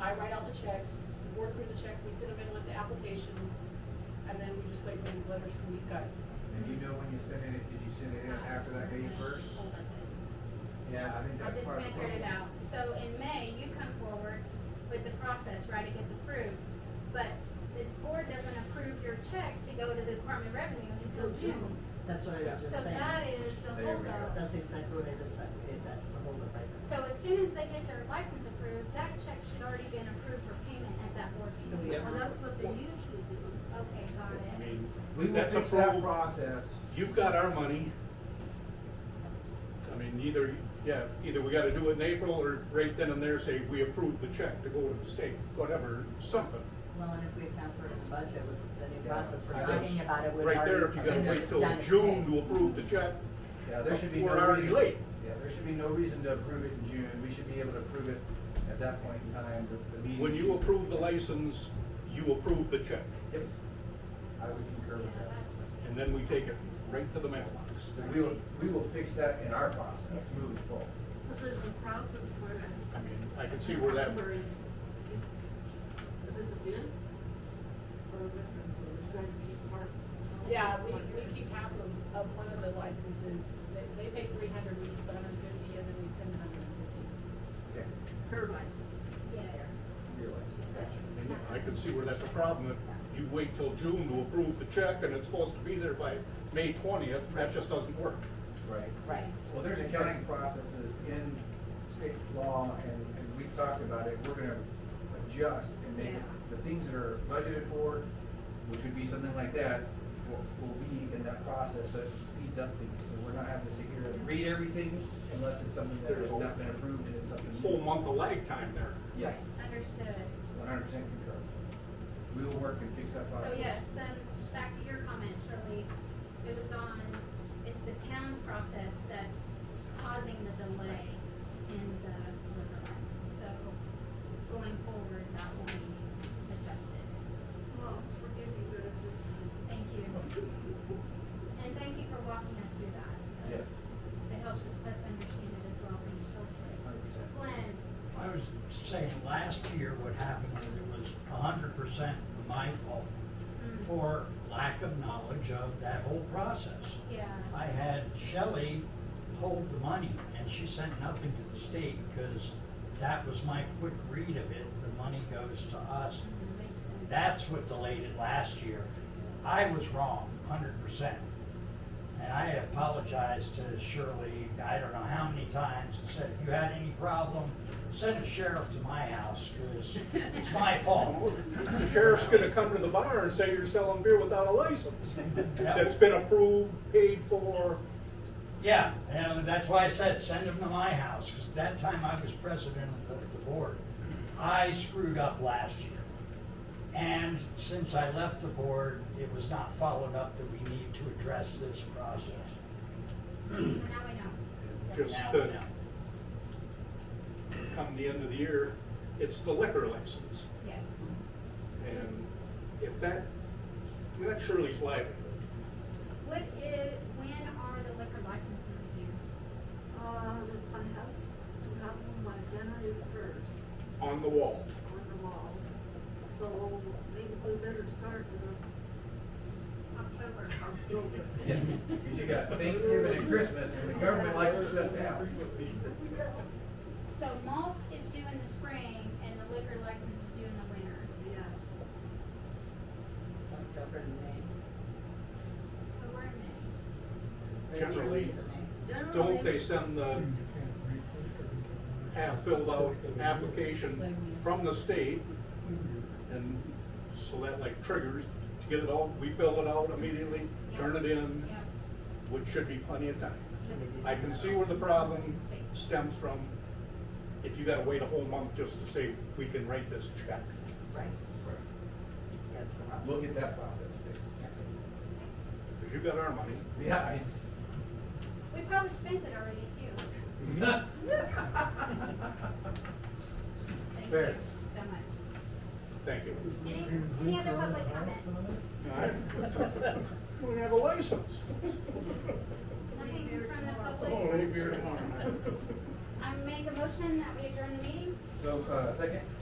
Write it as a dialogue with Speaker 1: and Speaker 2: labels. Speaker 1: I write out the checks, the board approves the checks, we send them in with the applications, and then we just wait for these letters from these guys.
Speaker 2: And you know when you sent it, did you send it in after that May first?
Speaker 3: Hold on, this.
Speaker 2: Yeah, I think
Speaker 3: I
Speaker 2: that's
Speaker 3: just
Speaker 2: part of the
Speaker 3: figured it
Speaker 2: problem.
Speaker 3: out. So in May, you come forward with the process, right, it gets approved. But the board doesn't approve your check to go to the Department of Revenue until June.
Speaker 4: That's what I was
Speaker 3: So
Speaker 4: just saying.
Speaker 3: that is the
Speaker 2: There we go.
Speaker 3: holdup.
Speaker 4: That's exactly what I just said, Okay, that's the holdup right there.
Speaker 3: So as soon as they get their license approved, that check should already been approved for payment at that board
Speaker 4: So we
Speaker 3: meeting.
Speaker 4: have.
Speaker 5: Well, that's what they usually do.
Speaker 3: Okay, got
Speaker 6: I
Speaker 3: it.
Speaker 6: mean,
Speaker 2: We will
Speaker 6: that's a
Speaker 2: fix that
Speaker 6: pro-
Speaker 2: process.
Speaker 6: You've got our money. I mean, either, yeah, either we gotta do it in April or right then and there say, we approve the check to go to the state, whatever, something.
Speaker 4: Well, and if we account for it in the budget with the new
Speaker 2: Yeah.
Speaker 4: process we're
Speaker 2: I
Speaker 4: talking
Speaker 2: guess-
Speaker 4: about, it would
Speaker 6: Right
Speaker 4: already.
Speaker 6: there, if you gotta
Speaker 4: been
Speaker 6: wait till
Speaker 4: done.
Speaker 6: June to approve the check,
Speaker 2: Yeah, there should be no
Speaker 6: We're
Speaker 2: reason.
Speaker 6: already late.
Speaker 2: Yeah, there should be no reason to approve it in June. We should be able to approve it at that point in time, the, the meeting.
Speaker 6: when you
Speaker 2: should-
Speaker 6: approve the license, you approve the check.
Speaker 2: Yep. I would concur
Speaker 3: Yeah,
Speaker 2: with that.
Speaker 3: that's what's.
Speaker 6: And then we take it right to the mailbox.
Speaker 2: So we will, we will fix that in our process moving forward.
Speaker 5: But there's a process where.
Speaker 6: I mean, I can see where that,
Speaker 5: where it- Is it the bin? Or the different, where you guys keep part?
Speaker 1: Yeah, we, we keep half of, of one of the licenses, they, they pay three hundred, we keep hundred and fifty, and then we send hundred and fifty.
Speaker 2: Okay,
Speaker 5: Her license.
Speaker 3: Yes.
Speaker 2: realize.
Speaker 6: I mean, I can see where that's a problem. If you wait till June to approve the check and it's supposed to be there by May twentieth, that just doesn't work.
Speaker 2: Right.
Speaker 4: Right.
Speaker 2: Well, there's accounting processes in state law, and, and we've talked about it, we're gonna adjust and make
Speaker 5: Yeah.
Speaker 2: the things that are budgeted for, which would be something like that, will, will be in that process, so it speeds up things, so we're not having to sit here and read everything unless it's something that has not been approved and it's something.
Speaker 6: Full month of lag time there.
Speaker 2: Yes,
Speaker 3: Understood.
Speaker 2: one hundred percent concur. We will work and fix that
Speaker 3: So
Speaker 2: process.
Speaker 3: yes, then, just back to your comment, Shirley, it was on, it's the town's process that's causing the delay in the liquor license. So going forward, that will be adjusted.
Speaker 5: Well, forgive you, but it's just.
Speaker 3: Thank you. And thank you for walking us through that. That's-
Speaker 2: Yes.
Speaker 3: That helps us understand it as well, from
Speaker 2: Hundred
Speaker 3: Shirley.
Speaker 2: percent.
Speaker 3: Glenn,
Speaker 7: I was saying last year what happened was it was a hundred percent my fault
Speaker 3: mm,
Speaker 7: for lack of knowledge of that whole process.
Speaker 3: yeah,
Speaker 7: I had Shelley hold the money and she sent nothing to the state because that was my quick read of it. The money goes to us.
Speaker 3: mm, makes sense.
Speaker 7: That's what delayed it last year. I was wrong, hundred percent. And I apologized to Shirley, I don't know how many times, and said, if you had any problem, send a sheriff to my house, because it's my fault.
Speaker 6: The sheriff's gonna come to the bar and say you're selling beer without a license. That's been approved, paid for.
Speaker 7: Yeah, and that's why I said, send him to my house, because that time I was president of the- the board. I screwed up last year. And since I left the board, it was not followed up that we need to address this process.
Speaker 3: So now I know.
Speaker 6: Just
Speaker 7: Now we
Speaker 6: to
Speaker 7: know.
Speaker 6: come the end of the year, it's the liquor license.
Speaker 3: Yes.
Speaker 6: And if that, I mean, that's Shirley's livelihood.
Speaker 3: What is, when are the liquor licenses due?
Speaker 5: Uh, I have, to have them on January first
Speaker 6: on the wall.
Speaker 5: on the wall. So maybe we better start in
Speaker 3: October.
Speaker 5: October.
Speaker 2: Yeah, cause you got Thanksgiving and Christmas, and the government likes to shut down.
Speaker 3: So malt is due in the spring and the liquor license is due in the winter.
Speaker 5: Yeah,
Speaker 4: October and May.
Speaker 3: October and May.
Speaker 4: Or
Speaker 6: Generally.
Speaker 4: June is it May?
Speaker 5: generally.
Speaker 6: Don't they send the half-filled out application from the state? And so that like triggers to get it all, we fill it out immediately, turn it in,
Speaker 3: Yep.
Speaker 6: which should be plenty of time.
Speaker 4: Should we do
Speaker 6: I can
Speaker 4: that?
Speaker 6: see where the problem stems from, if you gotta wait a whole month just to say, we can write this check.
Speaker 4: Right, that's the problem.
Speaker 2: We'll get that process fixed.
Speaker 6: Cause you got our money,
Speaker 2: Yeah, I
Speaker 3: We probably spent it already too. Thank you
Speaker 2: Fair.
Speaker 3: so much.
Speaker 6: thank you.
Speaker 3: Any, any other public comments?
Speaker 6: We don't have a license.
Speaker 3: Nothing from the public?
Speaker 6: Oh, they beer tomorrow.
Speaker 3: I make a motion that we adjourn the meeting?
Speaker 2: So, uh, second?